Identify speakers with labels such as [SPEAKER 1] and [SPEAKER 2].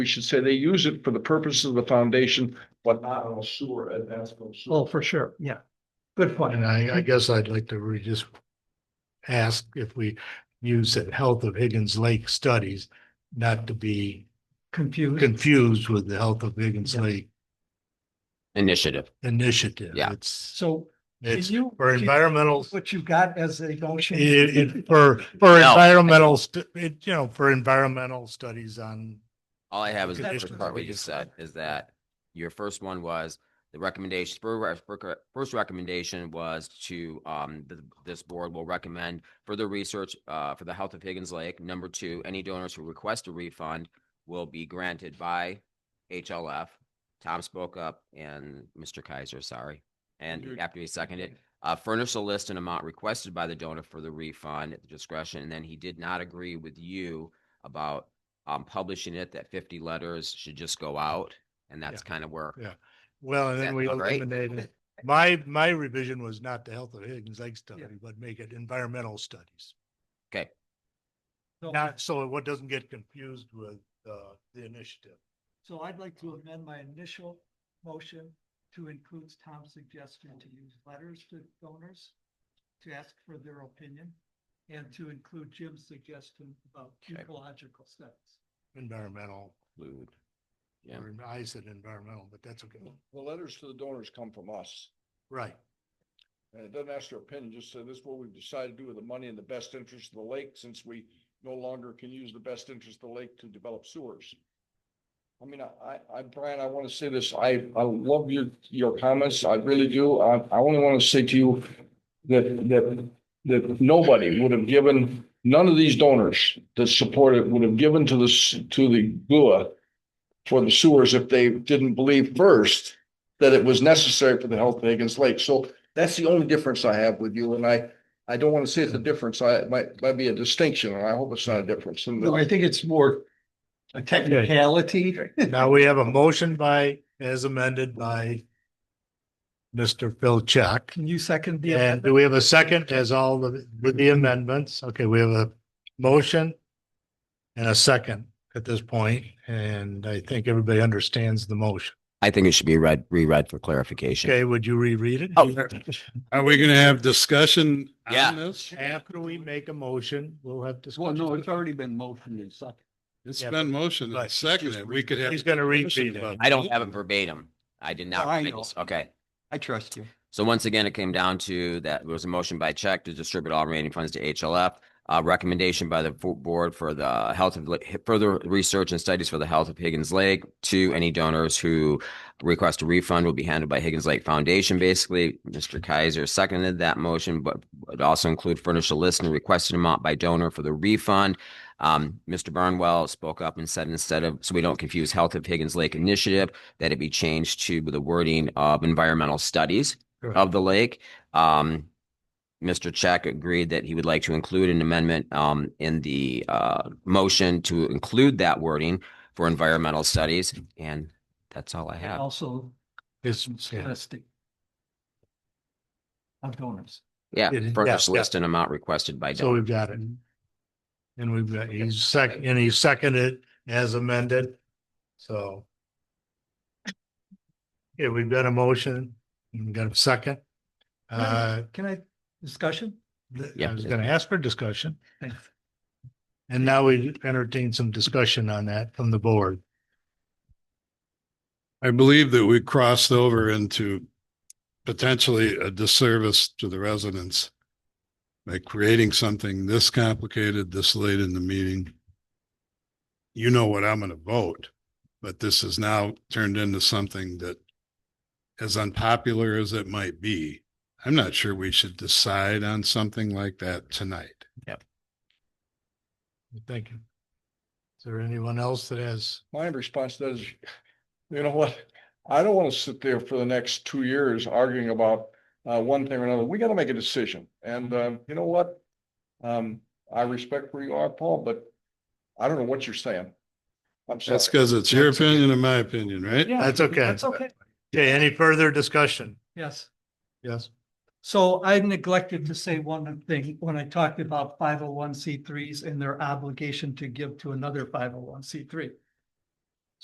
[SPEAKER 1] we should say they use it for the purposes of the foundation, but not on a sewer advancement.
[SPEAKER 2] Oh, for sure, yeah. Good point.
[SPEAKER 3] And uh, I, I guess I'd like to re- just ask if we use that health of Higgins Lake studies, not to be
[SPEAKER 2] Confused.
[SPEAKER 3] confused with the health of Higgins
[SPEAKER 2] Yeah.
[SPEAKER 3] Lake
[SPEAKER 4] initiative.
[SPEAKER 3] initiative.
[SPEAKER 4] Yeah.
[SPEAKER 3] It's,
[SPEAKER 2] So can
[SPEAKER 3] it's
[SPEAKER 2] you?
[SPEAKER 3] for environmental,
[SPEAKER 2] What you got as a motion?
[SPEAKER 3] it, it, for, for
[SPEAKER 4] No.
[SPEAKER 3] environmental, stu- it, you know, for environmental studies on,
[SPEAKER 4] All I have is the
[SPEAKER 3] Conditions
[SPEAKER 4] first part
[SPEAKER 3] that
[SPEAKER 4] we
[SPEAKER 3] we
[SPEAKER 4] just said
[SPEAKER 3] described.
[SPEAKER 4] is that your first one was the recommendation, fir- re- fir- first recommendation was to, um, th- this board will recommend further research, uh, for the health of Higgins Lake. Number two, any donors who request a refund will be granted by HLF. Tom spoke up and Mr. Kaiser, sorry. And
[SPEAKER 1] You're-
[SPEAKER 4] after he seconded, uh, furnish a list and amount requested by the donor for the refund at the discretion. And then he did not agree with you about um, publishing it, that fifty letters should just go out. And that's kind of where,
[SPEAKER 3] Yeah. well, and
[SPEAKER 4] That
[SPEAKER 3] then we
[SPEAKER 4] sounds great.
[SPEAKER 3] eliminated. My, my revision was not the health of Higgins Lake study, but make it environmental studies.
[SPEAKER 2] No.
[SPEAKER 3] Not, so it doesn't get confused with, uh, the initiative.
[SPEAKER 2] So I'd like to amend my initial motion to include Tom's suggestion to use letters to donors to ask for their opinion and to include Jim's suggestion about
[SPEAKER 4] Okay.
[SPEAKER 2] ecological studies.
[SPEAKER 3] environmental,
[SPEAKER 4] Include. Yeah.
[SPEAKER 3] or I said environmental, but that's okay.
[SPEAKER 1] The letters to the donors come from us.
[SPEAKER 3] Right,
[SPEAKER 1] And it doesn't ask their opinion, just say this is what we've decided to do with the money in the best interest of the lake, since we no longer can use the best interest of the lake to develop sewers. I mean, I, I, I- Brian, I want to say this, I, I love your, your comments, I really do. I, I only want to say to you that, that, that nobody would have given, none of these donors that supported would have given to the, s- to the GUA for the sewers if they didn't believe first that it was necessary for the health of Higgins Lake. So that's the only difference I have with you, and I, I don't want to say it's a difference, I, it might, might be a distinction, and I hope it's not a difference. And
[SPEAKER 2] No, I think it's more a technicality.
[SPEAKER 3] now we have a motion by, as amended by Mr. Phil Check.
[SPEAKER 2] Can you second the?
[SPEAKER 3] And do we have a second as all the, with the amendments? Okay, we have a motion and a second at this point, and I think everybody understands the motion.
[SPEAKER 4] I think it should be read, reread for clarification.
[SPEAKER 3] Okay, would you reread it?
[SPEAKER 4] Oh.
[SPEAKER 5] Are we gonna have discussion
[SPEAKER 4] Yeah.
[SPEAKER 5] on this?
[SPEAKER 3] After we make a motion, we'll have discussion.
[SPEAKER 6] Well, no, it's already been motioned and seconded.
[SPEAKER 5] It's
[SPEAKER 3] Yeah,
[SPEAKER 5] been motioned
[SPEAKER 3] but
[SPEAKER 5] and
[SPEAKER 3] he's
[SPEAKER 5] seconded. We could have.
[SPEAKER 3] He's gonna
[SPEAKER 5] discussion
[SPEAKER 3] repeat it.
[SPEAKER 5] about
[SPEAKER 4] I don't have it verbatim. I did not.
[SPEAKER 6] I
[SPEAKER 4] I
[SPEAKER 6] know.
[SPEAKER 4] just- Okay.
[SPEAKER 6] I trust you.
[SPEAKER 4] So once again, it came down to that there was a motion by check to distribute all remaining funds to HLF. A recommendation by the fo- board for the health of, Li- further research and studies for the health of Higgins Lake. Two, any donors who request a refund will be handled by Higgins Lake Foundation. Basically, Mr. Kaiser seconded that motion, but would also include furnish a list and requested amount by donor for the refund. Um, Mr. Burnwell spoke up and said instead of, so we don't confuse Health of Higgins Lake Initiative, that it be changed to the wording of environmental studies
[SPEAKER 3] Correct.
[SPEAKER 4] of the lake. Um, Mr. Check agreed that he would like to include an amendment um, in the uh, motion to include that wording for environmental studies, and that's all I have.
[SPEAKER 2] Also
[SPEAKER 3] It's- yeah.
[SPEAKER 2] listing of donors.
[SPEAKER 4] Yeah,
[SPEAKER 3] It is-
[SPEAKER 4] furnished
[SPEAKER 3] yeah, yeah.
[SPEAKER 4] list and amount requested by
[SPEAKER 3] So
[SPEAKER 4] donor.
[SPEAKER 3] we've got it. And we've got, he's sec, and he seconded as amended, so. Yeah, we've got a motion, we've got a second. Uh,
[SPEAKER 2] Can I, discussion?
[SPEAKER 3] th- I
[SPEAKER 4] Yeah.
[SPEAKER 3] was gonna ask for discussion,
[SPEAKER 2] Thanks.
[SPEAKER 3] and now we entertain some discussion on that from the board.
[SPEAKER 5] I believe that we crossed over into potentially a disservice to the residents by creating something this complicated this late in the meeting. You know what I'm gonna vote, but this is now turned into something that as unpopular as it might be, I'm not sure we should decide on something like that tonight.
[SPEAKER 3] Thank you. Is there anyone else that has,
[SPEAKER 1] my response to that is, you know what? I don't want to sit there for the next two years arguing about uh, one thing or another. We got to make a decision. And um, you know what? Um, I respect where you are, Paul, but I don't know what you're saying. I'm
[SPEAKER 5] That's
[SPEAKER 1] sorry.
[SPEAKER 5] because it's your opinion and my opinion, right?
[SPEAKER 3] That's okay.
[SPEAKER 2] That's okay.
[SPEAKER 3] okay, any further discussion?
[SPEAKER 2] Yes.
[SPEAKER 3] Yes.
[SPEAKER 2] So I neglected to say one thing when I talked about five oh one C threes and their obligation to give to another five oh one C three.